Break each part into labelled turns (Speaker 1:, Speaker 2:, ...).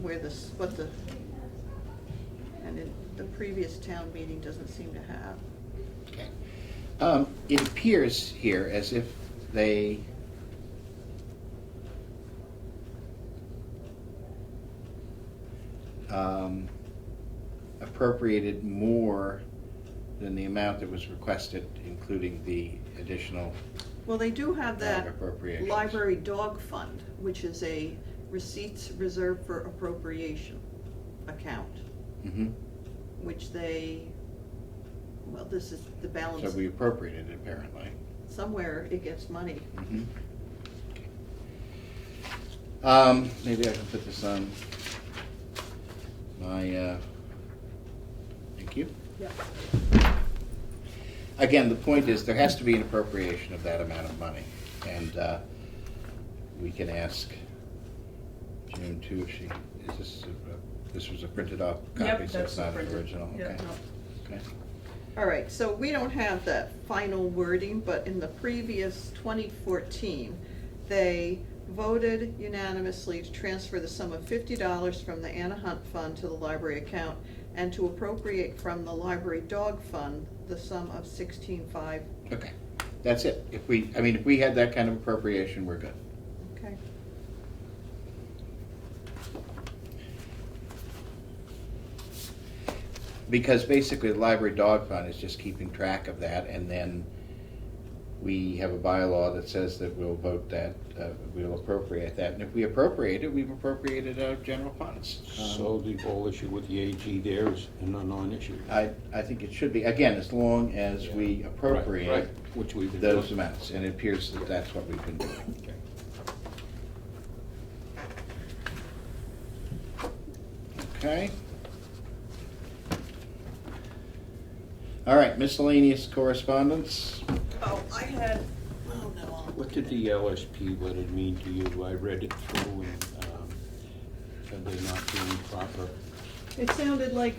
Speaker 1: where this, what the, and it, the previous town meeting doesn't seem to have.
Speaker 2: Okay. Um, It appears here as if they... um, appropriated more than the amount that was requested, including the additional,
Speaker 1: Well, they do have that
Speaker 2: Appropriations.
Speaker 1: library dog fund, which is a receipts reserved for appropriation account,
Speaker 2: Mhm.
Speaker 1: which they, well, this is the
Speaker 2: so
Speaker 1: balance.
Speaker 2: we appropriated it apparently.
Speaker 1: Somewhere it gets money.
Speaker 2: Mhm. Um, maybe I can put this on my, uh, thank you.
Speaker 1: Yep.
Speaker 2: Again, the point is, there has to be an appropriation of that amount of money, and, uh, we can ask June too, if she, is this, a- this was a printed off copy,
Speaker 3: Yep,
Speaker 2: so it's
Speaker 3: that's
Speaker 2: not an
Speaker 3: printed.
Speaker 2: original, okay?
Speaker 3: Yep.
Speaker 2: Okay.
Speaker 1: All right, so we don't have that final wording, but in the previous 2014, they voted unanimously to transfer the sum of $50 from the Anna Hunt Fund to the library account and to appropriate from the library dog fund the sum of 16.5.
Speaker 2: Okay, that's it. If we, I mean, if we had that kind of appropriation, we're good.
Speaker 1: Okay.
Speaker 2: Because basically, the library dog fund is just keeping track of that, and then we have a bylaw that says that we'll vote that, uh, we'll appropriate that, and if we appropriate it, we've appropriated out of general funds. Um,
Speaker 4: So the whole issue with the AG there is a non-issue.
Speaker 2: I, I think it should be, again, as long as we
Speaker 4: Right,
Speaker 2: appropriate
Speaker 4: right, Which we've been doing.
Speaker 2: those amounts, and it appears that that's what we've been doing.
Speaker 4: Okay.
Speaker 2: Okay. All right, miscellaneous correspondence.
Speaker 1: Oh, I had, oh no.
Speaker 4: What did the LSP letter mean to you? I read it through and, um, said they're not being proper.
Speaker 1: It sounded like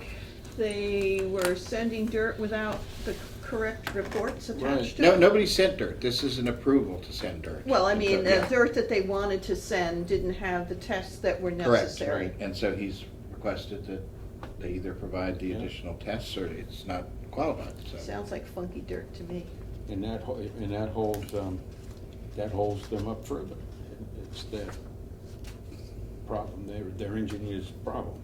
Speaker 1: they were sending dirt without the correct reports attached
Speaker 4: Right.
Speaker 1: to it.
Speaker 2: No, nobody sent dirt. This is an approval to send dirt.
Speaker 1: Well, I mean, the
Speaker 2: Yeah.
Speaker 1: dirt that they wanted to send didn't have the tests that were
Speaker 2: Correct.
Speaker 1: necessary.
Speaker 2: And so he's requested that they either provide the
Speaker 4: Yeah.
Speaker 2: additional tests or it's not qualified, so.
Speaker 1: Sounds like funky dirt to me.
Speaker 4: And that, ho- and that holds, um, that holds them up further. It's their problem, their, their engineer's problem.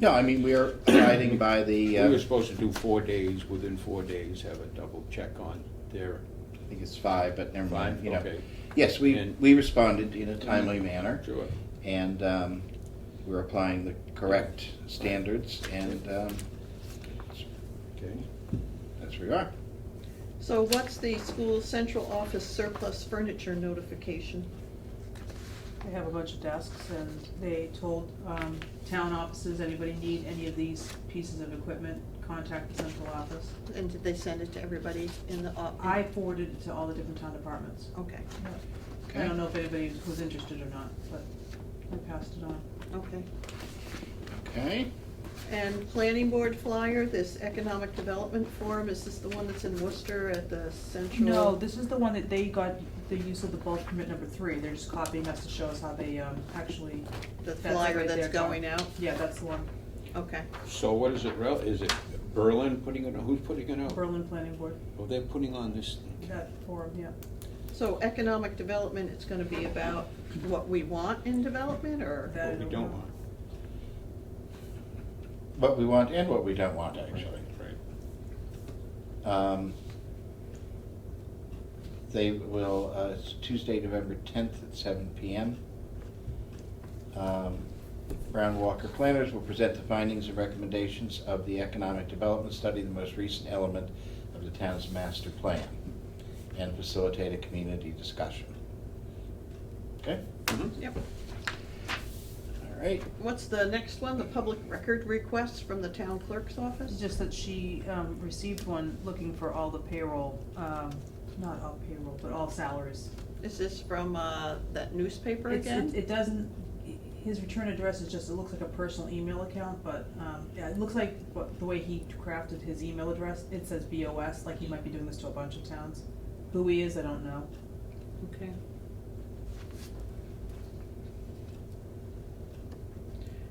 Speaker 2: No, I mean, we are abiding by
Speaker 4: We
Speaker 2: the, uh,
Speaker 4: were
Speaker 2: I
Speaker 4: supposed to do four days, within four days, have a double check on their.
Speaker 2: think it's five, but never mind,
Speaker 4: Five,
Speaker 2: Mm-hmm, you know.
Speaker 4: okay.
Speaker 2: Yes, we,
Speaker 4: And- Mm-hmm.
Speaker 2: we responded in a timely manner.
Speaker 4: Sure.
Speaker 2: And um, we're applying the correct standards and um,
Speaker 4: Okay.
Speaker 2: that's where we are.
Speaker 1: So what's the school central office surplus furniture notification?
Speaker 3: They have a bunch of desks and they told, um, town offices, anybody need any of these pieces of equipment, contact the central office.
Speaker 1: And did they send it to everybody in the office?
Speaker 3: I forwarded it to all the different town departments.
Speaker 1: Okay,
Speaker 3: I don't know if anybody was interested or not, but I passed it on.
Speaker 1: okay.
Speaker 2: Okay,
Speaker 1: And planning board flyer, this economic development forum, is this the one that's in Worcester at the central?
Speaker 3: No, this is the one that they got the use of the bulk permit number three, they're just copying us to show us how they, um, actually,
Speaker 1: The
Speaker 3: That's it
Speaker 1: flyer
Speaker 3: right
Speaker 1: that's
Speaker 3: there, Tom.
Speaker 1: going out?
Speaker 3: yeah, that's the one,
Speaker 1: Okay,
Speaker 4: So what is it, rel- is it Berlin putting it, on? who's putting it out?
Speaker 3: Berlin Planning Board,
Speaker 4: Oh, they're putting on this thing.
Speaker 3: that forum, yeah.
Speaker 1: so economic development, it's gonna be about what we want in development, or?
Speaker 3: That I
Speaker 4: What we
Speaker 3: don't
Speaker 4: don't
Speaker 3: know.
Speaker 4: want.
Speaker 2: what we want and what we don't want, actually.
Speaker 4: Right.
Speaker 2: Um, They will, uh, it's Tuesday, November 10th at seven PM. Um, Brown Walker Planners will present the findings and recommendations of the Economic Development Study, the most recent element of the town's master plan, and facilitate a community discussion. Okay,
Speaker 4: Mhm.
Speaker 1: Yep.
Speaker 2: all right.
Speaker 1: What's the next one, the public record request from the town clerk's office?
Speaker 3: It's just that she um, received one looking for all the payroll, um, not all payroll, but all salaries.
Speaker 1: Is this from, uh, that newspaper
Speaker 3: It's- it-
Speaker 1: again?
Speaker 3: It doesn't, his return address is just, it looks like a personal email account, but, um, yeah, it looks like what- the way he crafted his email address, it says BOS, like he might be doing this to a bunch of towns. Who he is, I don't know.
Speaker 1: Okay.